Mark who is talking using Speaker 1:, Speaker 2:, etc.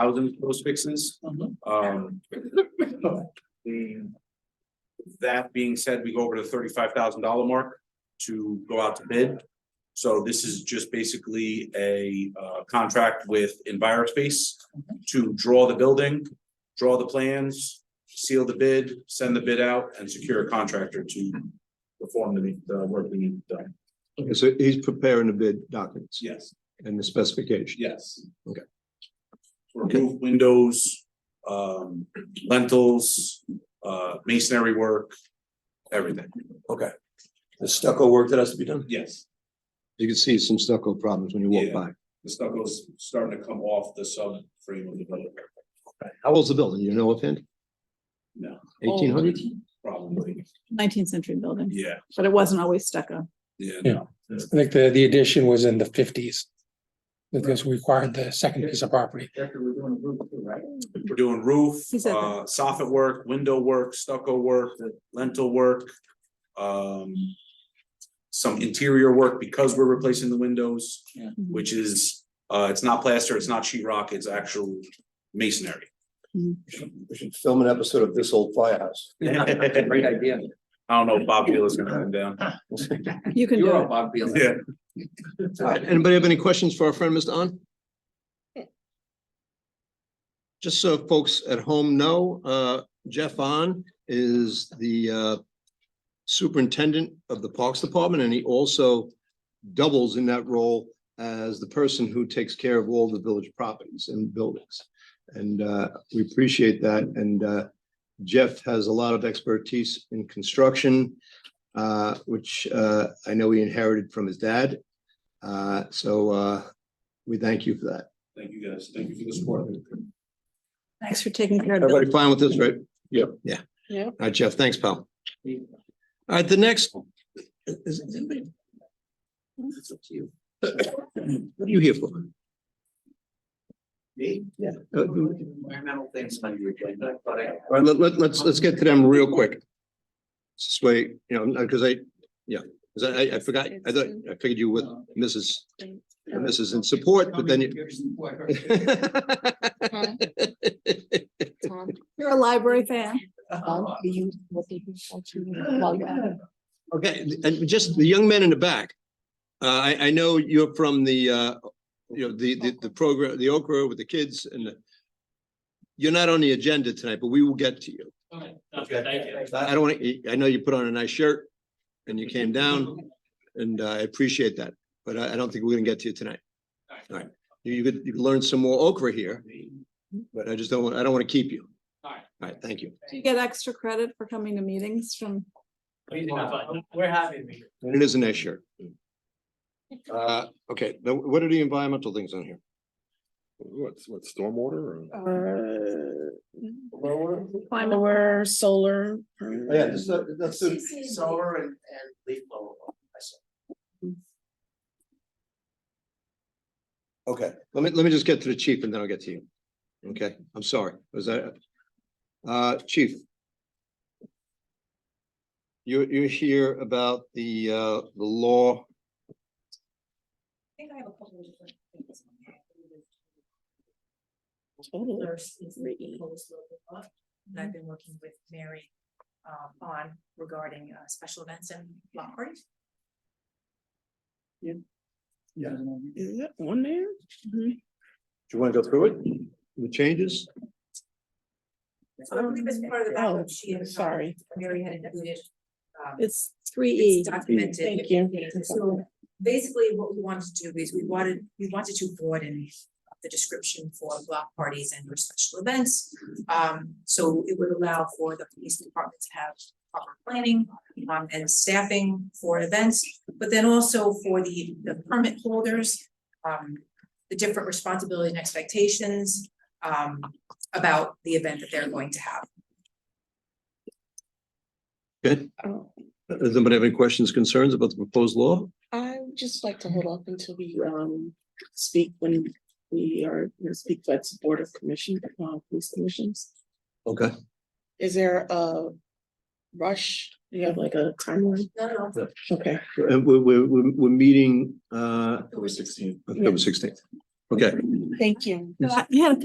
Speaker 1: housing post fixes.
Speaker 2: Mhm.
Speaker 1: Um. the- That being said, we go over to the thirty-five thousand dollar mark to go out to bid. So this is just basically a uh contract with EnviroSpace to draw the building, draw the plans, seal the bid, send the bid out, and secure a contractor to perform the the work we need done.
Speaker 3: Okay, So he's preparing the bid documents
Speaker 1: Yes,
Speaker 3: and the specification.
Speaker 1: yes.
Speaker 3: Okay.
Speaker 1: Remove windows, um, lentils, uh, masonry work, everything.
Speaker 4: The stucco work that has to be done?
Speaker 1: Yes,
Speaker 3: You can see some stucco problems when you walk
Speaker 1: Yeah.
Speaker 3: by.
Speaker 1: the stuff was starting to come off the sub frame of the building,
Speaker 3: How old's the building? You know offhand?
Speaker 1: No.
Speaker 3: Eighteen hundred?
Speaker 1: probably.
Speaker 2: Nineteenth century building,
Speaker 1: Yeah,
Speaker 2: but it wasn't always stucco.
Speaker 1: yeah.
Speaker 5: Yeah. I think the, the addition was in the fifties. Because we acquired the second piece of property.
Speaker 1: We're doing roof,
Speaker 2: He said that.
Speaker 1: uh, soffit work, window work, stucco work, lentil work. Um. Some interior work because we're replacing the windows,
Speaker 5: Yeah.
Speaker 1: which is, uh, it's not plaster, it's not sheetrock, it's actual masonry.
Speaker 4: We should film an episode of This Old Firehouse.
Speaker 6: Great idea.
Speaker 1: I don't know if Bob Beal is gonna come down.
Speaker 2: You can
Speaker 6: You're
Speaker 2: do
Speaker 6: all
Speaker 2: it.
Speaker 6: Bob Beal.
Speaker 1: Yeah.
Speaker 3: Anybody have any questions for our friend, Mr. On? Just so folks at home know, uh, Jeff On is the uh, superintendent of the Parks Department, and he also doubles in that role as the person who takes care of all the village properties and buildings. And uh, we appreciate that. And uh, Jeff has a lot of expertise in construction, uh, which uh, I know he inherited from his dad. Uh, so, uh, we thank you for that.
Speaker 1: Thank you guys, thank you for the support.
Speaker 3: Oh,
Speaker 2: Thanks for taking care of it.
Speaker 3: Everybody fine with this, right? Yeah. Yeah.
Speaker 2: Yeah.
Speaker 3: All right, Jeff, thanks, pal. All right, the next. is- is anybody- That's up to you. What are you here for?
Speaker 6: Me?
Speaker 3: Yeah. Uh, All
Speaker 6: Environmental things on your agenda, but I.
Speaker 3: right, let, let, let's, let's get to them real quick. This way, you know, because I, yeah, 'cause I, I forgot, I thought, I figured you with
Speaker 6: um,
Speaker 3: Mrs. and Mrs. in support, but then you.
Speaker 7: Tom,
Speaker 2: You're a library fan.
Speaker 7: Tom, do you, Um, what did you want to log out?
Speaker 3: Okay, and just the young men in the back. Uh, I, I know you're from the, uh, you know, the, the, the program, the Oak Grove with the kids and the. You're not on the agenda tonight, but we will get to you.
Speaker 6: Okay, thank you.
Speaker 3: I I don't want to, I know you put on a nice shirt and you came down and uh, I appreciate that, but I, I don't think we're gonna get to you tonight. All right, you, you could, you could learn some more okra here, but I just don't want, I don't want to keep you. All
Speaker 6: right.
Speaker 3: All right, thank you.
Speaker 2: Do you get extra credit for coming to meetings from?
Speaker 6: We're happy to be here.
Speaker 3: And it is a nice shirt. Uh, okay, now what are the environmental things on here?
Speaker 8: What's, what, stormwater or?
Speaker 7: Climate aware, solar.
Speaker 3: Yeah, this, that's
Speaker 6: Solar and, and leaf blower. I said.
Speaker 3: Okay, let me, let me just get to the chief and then I'll get to you. Okay, I'm sorry, was that? Uh, chief. You're, you're here about the, uh, the law,
Speaker 9: I think I have a couple of different things. on that. First is the proposed local law that I've been working with Mary um, on regarding uh, special events and block parties.
Speaker 7: Is that on there?
Speaker 3: do you want to go through it? The changes?
Speaker 9: So I believe as part of the backup,
Speaker 7: Oh,
Speaker 9: she and uh,
Speaker 7: sorry.
Speaker 9: Mary had included. um,
Speaker 2: It's three E.
Speaker 9: It's documented.
Speaker 7: Thank you.
Speaker 9: Yeah, So basically, what we wanted to do is we wanted, we wanted to broaden the description for block parties and or special events. Um, so it would allow for the police department to have proper planning um, and staffing for events, but then also for the the permit holders, um, the different responsibilities and expectations um, about the event that they're going to have.
Speaker 3: Good.
Speaker 7: Oh,
Speaker 3: Does anybody have any questions, concerns about the proposed law?
Speaker 7: I would just like to hold off until we um speak when we are, you know, speak at the Board of Commission, uh, police commissions.
Speaker 3: Okay.
Speaker 7: Is there a rush? Do you have like a timeline?
Speaker 9: No, no,
Speaker 7: Okay.
Speaker 3: Uh, we're, we're, we're, we're meeting, uh,
Speaker 6: October sixteenth.
Speaker 3: October sixteenth. Okay.
Speaker 7: Thank you.
Speaker 2: So I- You had a